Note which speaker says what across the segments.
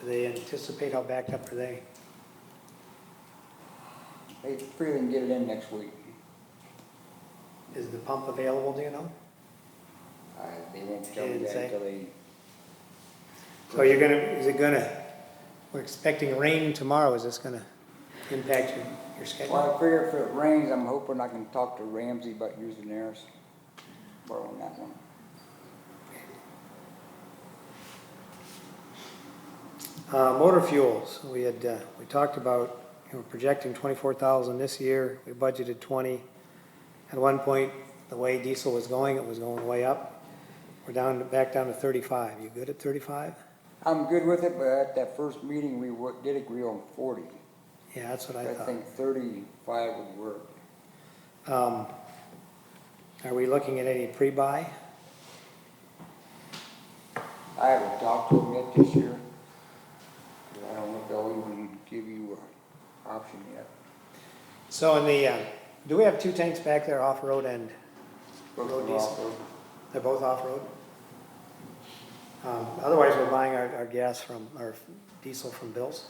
Speaker 1: Do they anticipate how backed up are they?
Speaker 2: They free and get it in next week.
Speaker 1: Is the pump available, do you know?
Speaker 2: Uh, They won't tell me
Speaker 1: Didn't
Speaker 2: that
Speaker 1: say.
Speaker 2: until they,
Speaker 1: So you're gonna, is it gonna, we're expecting rain tomorrow, is this gonna impact your, your schedule?
Speaker 2: well, I figure if it rains, I'm hoping I can talk to Ramsey about using theirs, borrowing that one.
Speaker 1: Uh, motor fuels, we had, uh, we talked about, you know, projecting twenty-four thousand this year, we budgeted twenty. At one point, the way diesel was going, it was going way up. We're down, to- back down to thirty-five, you good at thirty-five?
Speaker 2: I'm good with it, but at that first meeting, we wa- did agree on forty.
Speaker 1: Yeah, that's what I
Speaker 2: I
Speaker 1: thought.
Speaker 2: think thirty-five would work.
Speaker 1: Um, are we looking at any pre-buy?
Speaker 2: I haven't talked to them yet this year. 'Cause I don't know if they'll even give you an option yet.
Speaker 1: So in the, uh, do we have two tanks back there off-road and
Speaker 2: Both
Speaker 1: Road
Speaker 2: are off
Speaker 1: diesel.
Speaker 2: road.
Speaker 1: They're both off-road? Um, Otherwise, we're buying our, our gas from, our diesel from Bill's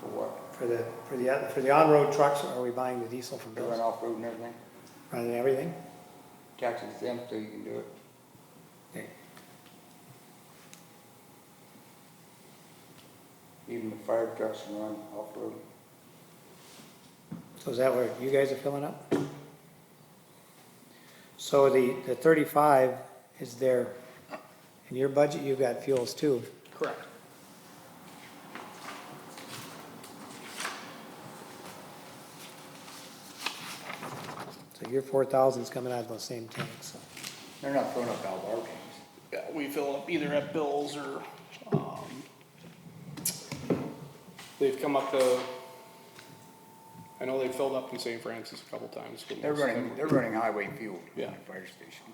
Speaker 2: For what?
Speaker 1: for the, for the, for the on-road trucks, are we buying the diesel from
Speaker 2: They run
Speaker 1: Bill's?
Speaker 2: off road and everything.
Speaker 1: Running everything?
Speaker 2: Tax exempt, so you can do it.
Speaker 1: Okay.
Speaker 2: Even the fire trucks can run off road.
Speaker 1: So is that where you guys are filling up? So the, the thirty-five is there, in your budget, you've got fuels too.
Speaker 3: Correct.
Speaker 1: So your four thousand's coming out of those same tanks.
Speaker 2: They're not throwing up all our tanks.
Speaker 3: Yeah, we fill up either at Bill's or, um, they've come up to, I know they've filled up in St. Francis a couple times. but
Speaker 2: They're
Speaker 3: most of
Speaker 2: running,
Speaker 3: them-
Speaker 2: they're running highway fuel in
Speaker 3: Yeah.
Speaker 2: the fire station.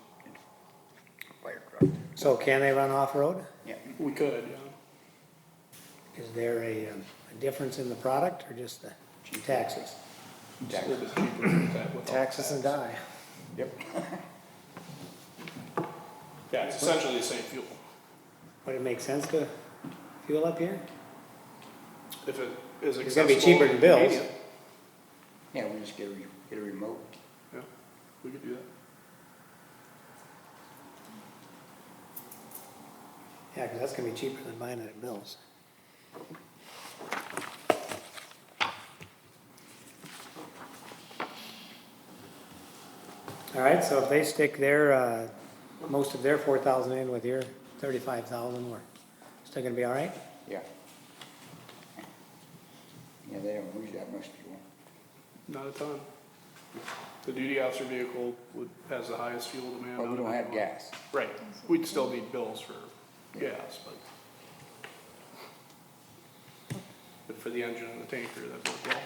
Speaker 2: Fire truck.
Speaker 1: So can they run off-road?
Speaker 2: Yeah,
Speaker 3: We could, yeah.
Speaker 1: Is there a, um, a difference in the product or just the taxes?
Speaker 3: It's a little bit cheaper with that without
Speaker 1: Taxes and
Speaker 3: tax.
Speaker 1: die.
Speaker 2: yep.
Speaker 3: Yeah, it's essentially the same fuel.
Speaker 1: Would it make sense to fuel up here?
Speaker 3: If it is accessible.
Speaker 1: It's gonna be cheaper than Bill's.
Speaker 3: convenient,
Speaker 2: Yeah, we just get a, re- get a remote.
Speaker 3: Yeah, we could do that.
Speaker 1: Yeah, 'cause that's gonna be cheaper than buying it at Mills. All right, so if they stick their, uh, most of their four thousand in with your thirty-five thousand, we're still gonna be all right?
Speaker 2: Yeah. Yeah, they don't use that much fuel.
Speaker 3: Not a ton. The duty officer vehicle would, has the highest fuel demand.
Speaker 2: But we
Speaker 3: out of
Speaker 2: don't have
Speaker 3: anyone.
Speaker 2: gas.
Speaker 3: Right, we'd still need bills for gas, but. But for the engine and the tanker, that worked well.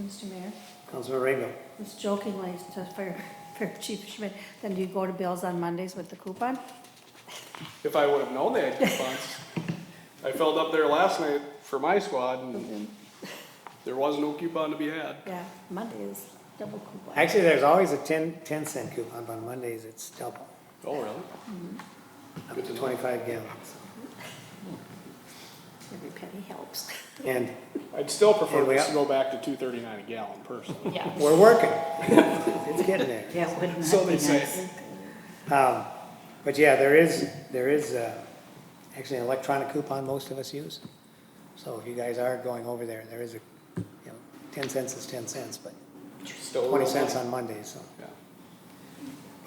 Speaker 4: Mr. Mayor,
Speaker 1: Councilman Rainbow,
Speaker 4: I was jokingly to Fire, Fire Chief Schmidt, then do you go to Bill's on Mondays with the coupon?
Speaker 3: If I would've known they had coupons, I filled up there last night for my squad and there was no coupon to be had.
Speaker 4: Yeah, Monday is double coupon.
Speaker 1: actually, there's always a ten, ten cent coupon, but on Mondays it's double,
Speaker 3: Oh, really?
Speaker 1: up to
Speaker 3: Good to know.
Speaker 1: twenty-five gallons.
Speaker 4: Every penny helps.
Speaker 1: And
Speaker 3: I'd still
Speaker 1: Yeah,
Speaker 3: prefer
Speaker 1: we
Speaker 3: this
Speaker 1: got-
Speaker 3: to go back to two thirty-nine a gallon personally.
Speaker 4: Yeah.
Speaker 1: we're working. It's getting there.
Speaker 4: Yeah, wouldn't
Speaker 3: So
Speaker 4: that be
Speaker 3: they say.
Speaker 4: nice?
Speaker 1: Um, But yeah, there is, there is uh, actually an electronic coupon most of us use. So if you guys are going over there, there is a, you know, 10 cents is 10 cents, but
Speaker 3: Still a
Speaker 1: 20
Speaker 3: little
Speaker 1: cents
Speaker 3: money.
Speaker 1: on Monday, so.
Speaker 3: Yeah.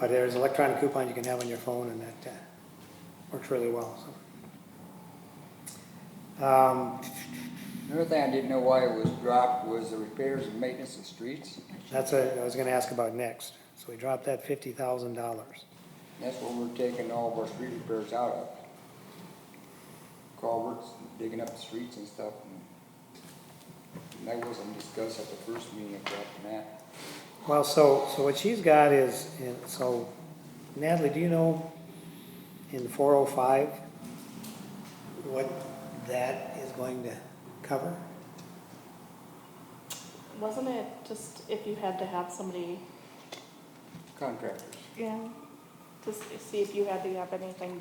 Speaker 1: But there is an electronic coupon you can have on your phone and that uh, works really well, so. Um,
Speaker 2: Another thing I didn't know why it was dropped was the repairs and maintenance of streets.
Speaker 1: That's what I was gonna ask about next. So we dropped that $50,000.
Speaker 2: That's what we're taking all of our street repairs out of. Culverts, digging up the streets and stuff. and That wasn't discussed at the first meeting about that.
Speaker 1: Well, so, so what she's got is, and so Natalie, do you know in four oh five what that is going to cover?
Speaker 5: Wasn't it just if you had to have somebody,
Speaker 2: Contractors.
Speaker 5: yeah, to s- see if you had to have anything done